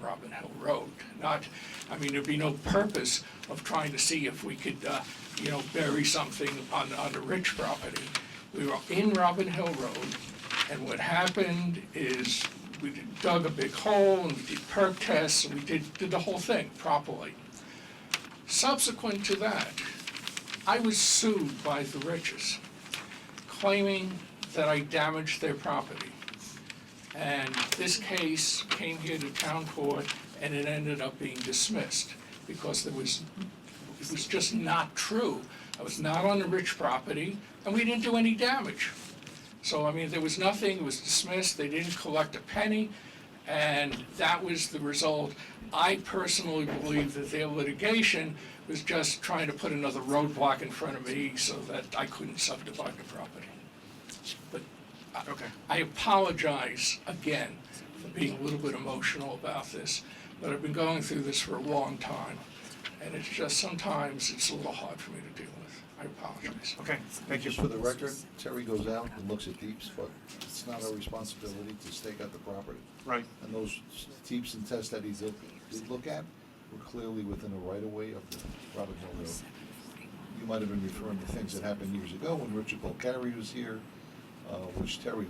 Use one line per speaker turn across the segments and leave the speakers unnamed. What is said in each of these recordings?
that road, not, I mean, there'd be no purpose of trying to see if we could, uh, you know, bury something on, on the Rich property. We were in Robin Hill Road, and what happened is we dug a big hole, and we did perk tests, and we did, did the whole thing properly. Subsequent to that, I was sued by the Riches, claiming that I damaged their property. And this case came here to town court, and it ended up being dismissed, because there was, it was just not true. I was not on the Rich property, and we didn't do any damage. So, I mean, there was nothing, it was dismissed, they didn't collect a penny, and that was the result. I personally believe that their litigation was just trying to put another roadblock in front of me so that I couldn't subdivide the property. But I-
Okay.
I apologize again for being a little bit emotional about this, but I've been going through this for a long time, and it's just sometimes it's a little hard for me to deal with. I apologize.
Okay, thank you.
Just for the record, Terry goes out and looks at deeps, but it's not our responsibility to stake out the property.
Right,
And those deeps and tests that he's, look- did look at were clearly within the right of way of the Robin Hill Road. You might have been referring to things that happened years ago when Richard Bulcari was here, uh, which Terry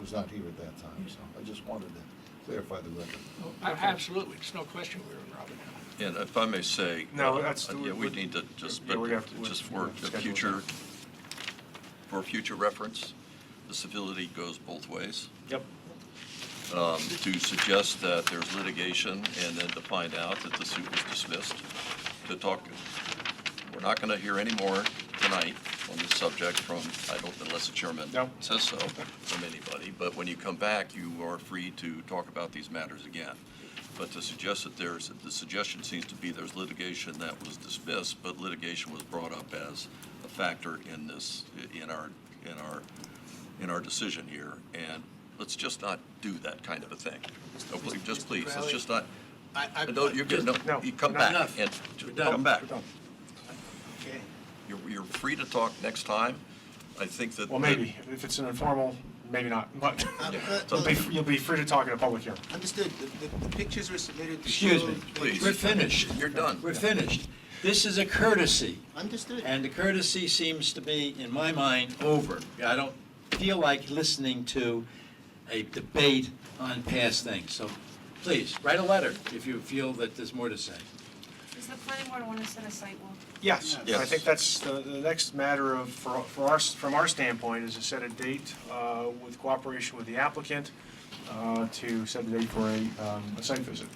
was not here at that time, so I just wanted to clarify the record.
Oh, a- Absolutely, it's no question we were in Robin Hill.
And if I may say.
No,
uh,
that's-
Yeah, we need to just,
Yeah,
but
we're gonna have to-
just for
we'll schedule
the
it.
future, for future reference, the civility goes both ways.
yep,
Um, To suggest that there's litigation and then to find out that the suit was dismissed, to talk, we're not going to hear any more tonight on this subject from, I don't, unless the chairman
No.
says so, from anybody. But when you come back, you are free to talk about these matters again. But to suggest that there's, the suggestion seems to be there's litigation that was dismissed, but litigation was brought up as a factor in this, in our, in our, in our decision here. And let's just not do that kind of a thing. So please, just please, let's just not,
I, I,
no, you're good,
No,
no, you come
we're
back
done.
and,
We're done.
come back.
we're done.
okay.
You're, you're free to talk next time. I think that.
Well, maybe, if it's an informal, maybe not, but
Um,
Yeah.
uh,
you'll be, you'll be free to talk in a public hearing.
Understood, the, the, the pictures were submitted to show.
Excuse me,
that-
Please.
We're finished.
You're done.
We're finished. This is a courtesy,
Understood.
and the courtesy seems to be, in my mind, over. I don't feel like listening to a debate on past things, so please, write a letter if you feel that there's more to say.
Does the planning board want to set a site walk?
Yes, I
Yes.
think that's, the, the next matter of, for, for our, from our standpoint, is to set a date, uh, with cooperation with the applicant, uh, to set a date for a, um, a site visit.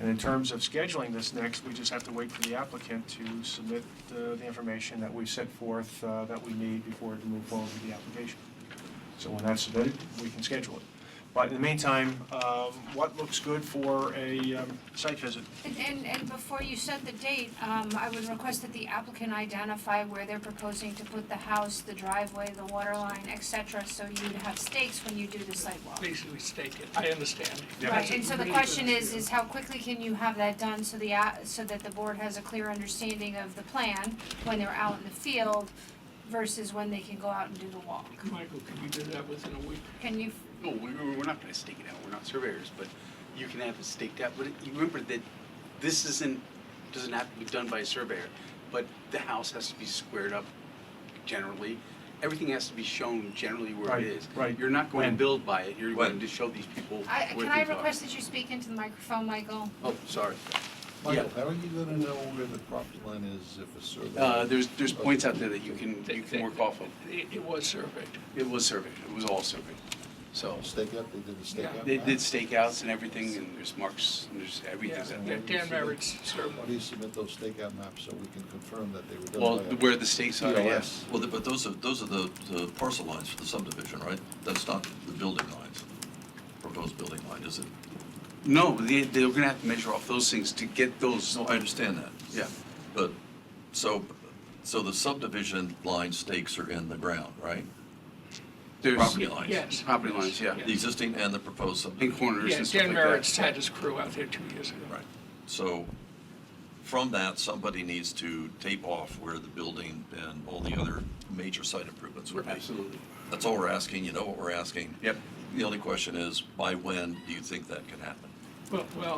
And in terms of scheduling this next, we just have to wait for the applicant to submit the, the information that we set forth, uh, that we need before to move forward with the application. So when that's submitted, we can schedule it. But in the meantime, um, what looks good for a, um, site visit?
And- And, and before you set the date, um, I would request that the applicant identify where they're proposing to put the house, the driveway, the water line, et cetera, so you'd have stakes when you do the site walk.
Basically stake it, I understand.
Yeah.
Right, and so the question is, is how quickly can you have that done so the, a- so that the board has a clear understanding of the plan when they're out in the field versus when they can go out and do the walk?
Michael, can you do that within a week?
Can you,
No, we, we're not gonna stake it out, we're not surveyors, but you can have it staked out, but you remember that this isn't, doesn't have to be done by a surveyor, but the house has to be squared up generally, everything has to be shown generally where
Right,
it is.
right.
You're not going
When?
to build by it, you're going
When?
to show these people where
I,
things are.
can I request that you speak into the microphone, Michael?
Oh, sorry,
Michael, how are you gonna know where the property line is if a survey?
uh, there's, there's points out there that you can, you can work off of,
It, it was surveyed.
it was surveyed, it was all surveyed, so,
Stake up, they did the stake
Yeah,
up?
they did stakeouts and everything, and there's marks, and there's everything's out
Yeah,
there.
Dan Merritt's
Why do
survey.
you submit those stakeout maps so we can confirm that they were done by?
Well,
a-
where the stakes are,
POS.
yes.
Well, the- but those are, those are the, the parcel lines for the subdivision, right? That's not the building lines, proposed building line, is it?
No, they, they're gonna have to measure off those things to get those,
No, I understand that,
yeah.
but, so, so the subdivision line stakes are in the ground, right?
There's
Property lines.
Yes.
Property lines, yeah.
The existing and the proposed
And
subdivision.
corners
Yeah,
and stuff
Dan
like
Merritt's
that.
had his crew out there two years ago.
Right. So from that, somebody needs to tape off where the building and all the other major site improvements would be.
Absolutely.
That's all we're asking, you know what we're asking.
Yep.
The only question is, by when do you think that can happen?
Well, well,